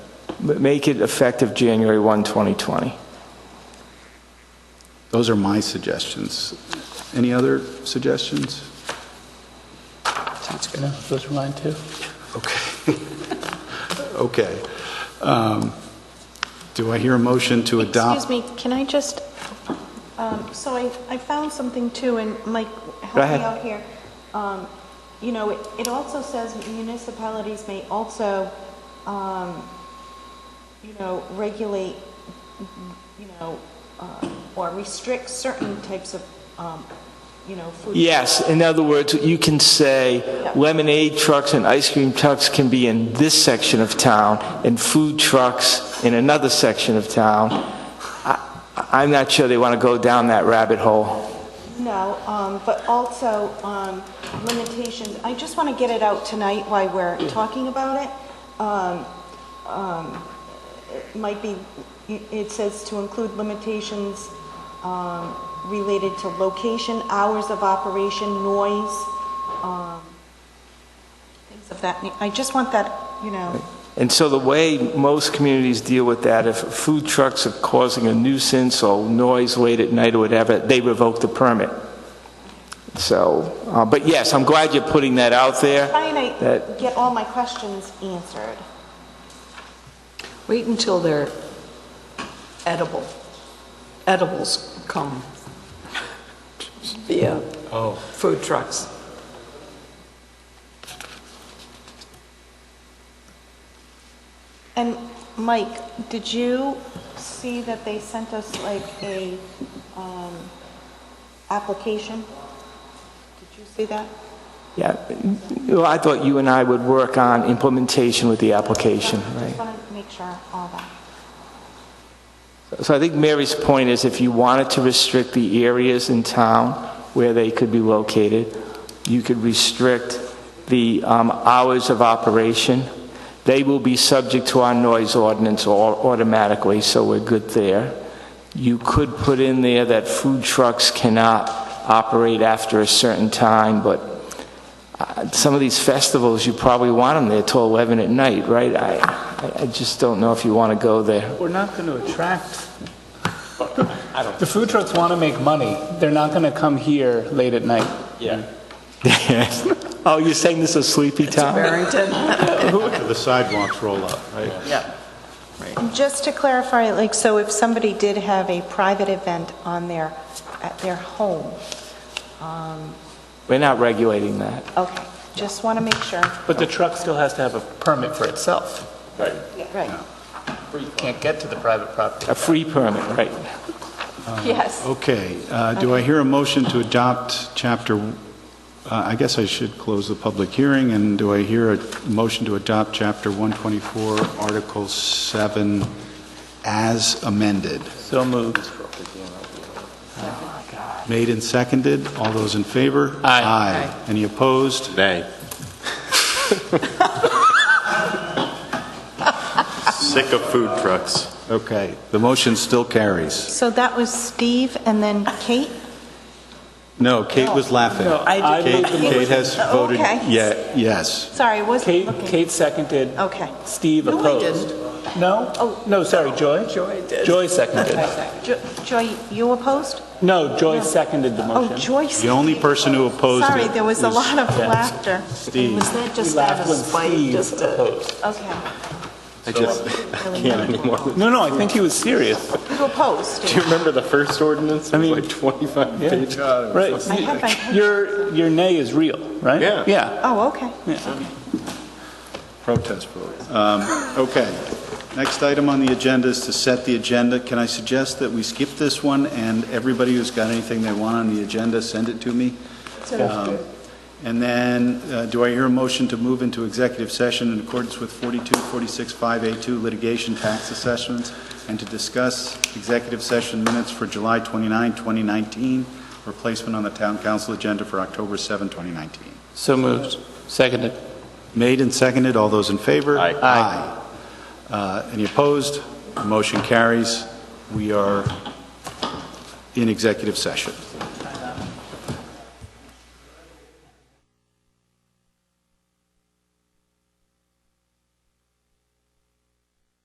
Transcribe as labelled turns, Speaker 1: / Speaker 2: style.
Speaker 1: M- Make it effective January 1, 2020.
Speaker 2: Those are my suggestions. Any other suggestions?
Speaker 3: Sounds good. Those are mine too.
Speaker 2: Okay. Okay. Um, Do I hear a motion to
Speaker 4: Excuse
Speaker 2: adopt?
Speaker 4: me, can I just, um, so I, I found something too, and Mike,
Speaker 1: Go
Speaker 4: help
Speaker 1: ahead.
Speaker 4: me out here. Um, You know, it- it also says municipalities may also, um, you know, regulate, you know, uh, or restrict certain types of, um, you know, food.
Speaker 1: Yes, in other words, you can say lemonade trucks and ice cream trucks can be in this section of town, and food trucks in another section of town. I- I'm not sure they want to go down that rabbit hole.
Speaker 4: No, um, but also um, limitations, I just want to get it out tonight while we're talking about it. Um, um, It might be, it says to include limitations um, related to location, hours of operation, noise, um, things of that, na- I just want that, you know,
Speaker 1: And so the way most communities deal with that, if food trucks are causing a nuisance or noise late at night or whatever, they revoke the permit. So, uh, but yes, I'm glad you're putting that out there.
Speaker 4: trying to
Speaker 1: That-
Speaker 4: get all my questions answered.
Speaker 5: Wait until they're edible. Edibles come via food trucks.
Speaker 4: And Mike, did you see that they sent us like a, um, application? Did you see that?
Speaker 1: Yeah, well, I thought you and I would work on implementation with the application,
Speaker 4: Just
Speaker 1: right?
Speaker 4: want to make sure all that.
Speaker 1: So I think Mary's point is if you wanted to restrict the areas in town where they could be located, you could restrict the um, hours of operation. They will be subject to our noise ordinance au- automatically, so we're good there. You could put in there that food trucks cannot operate after a certain time, but uh, some of these festivals, you probably want them there till 11 at night, right? I, I- I just don't know if you want to go there.
Speaker 3: We're not going to attract. The food trucks want to make money. They're not going to come here late at night.
Speaker 1: Yes. Oh, you're saying this is sleepy town?
Speaker 5: Barrington?
Speaker 2: The sidewalks roll up, right?
Speaker 5: Yeah.
Speaker 4: Just to clarify, like, so if somebody did have a private event on their, at their home,
Speaker 1: We're not regulating that.
Speaker 4: okay, just want to make sure.
Speaker 3: But the truck still has to have a permit for itself.
Speaker 4: Right.
Speaker 3: You can't get to the private property.
Speaker 1: A free permit, right?
Speaker 5: Yes.
Speaker 2: Okay, uh, do I hear a motion to adopt chapter, uh, I guess I should close the public hearing, and do I hear a motion to adopt chapter 124, Article 7, as amended?
Speaker 3: So moved.
Speaker 2: Made and seconded, all those in favor?
Speaker 3: Aye.
Speaker 2: Aye. Any opposed?
Speaker 6: Nay. Sick of food trucks.
Speaker 2: Okay, the motion still carries.
Speaker 4: So that was Steve and then Kate?
Speaker 2: No, Kate was laughing.
Speaker 3: I
Speaker 2: Kate
Speaker 3: moved the motion.
Speaker 2: Kate has voted
Speaker 4: Okay.
Speaker 2: ye- yes.
Speaker 4: Sorry, I wasn't
Speaker 3: Kate,
Speaker 4: looking.
Speaker 3: Kate seconded.
Speaker 4: Okay.
Speaker 3: Steve
Speaker 5: No, I
Speaker 3: opposed. No? Oh. No, sorry, Joy?
Speaker 5: Joy did.
Speaker 3: Joy seconded.
Speaker 4: Jo- Joy, you opposed?
Speaker 3: No, Joy seconded the
Speaker 4: Oh,
Speaker 3: motion.
Speaker 4: Joyce.
Speaker 2: The only person who opposed
Speaker 4: Sorry,
Speaker 2: it
Speaker 4: there was a
Speaker 2: was
Speaker 4: lot of laughter.
Speaker 2: Steve.
Speaker 5: Was that
Speaker 3: We
Speaker 5: just out
Speaker 3: laughed
Speaker 5: of
Speaker 3: when
Speaker 5: spite,
Speaker 3: Steve
Speaker 5: just to...
Speaker 3: opposed.
Speaker 4: uh, Okay.
Speaker 6: I just can't anymore.
Speaker 3: No, no, I think he was serious.
Speaker 4: You opposed,
Speaker 6: Do you remember the first ordinance? It was like 25 pages.
Speaker 3: Right.
Speaker 4: I have my pen.
Speaker 3: Your, your nay is real, right?
Speaker 6: Yeah.
Speaker 3: Yeah.
Speaker 4: Oh, okay.
Speaker 2: Protest vote. Um, Okay. Next item on the agenda is to set the agenda. Can I suggest that we skip this one, and everybody who's got anything they want on the agenda, send it to me? Um, And then, uh, do I hear a motion to move into executive session in accordance with 42, 46, 5A2 litigation tax assessments, and to discuss executive session minutes for July 29, 2019, replacement on the town council agenda for October 7, 2019?
Speaker 3: So moved. Seconded.
Speaker 2: Made and seconded, all those in favor?
Speaker 6: Aye.
Speaker 2: Aye. Uh, Any opposed? Motion carries. We are in executive session.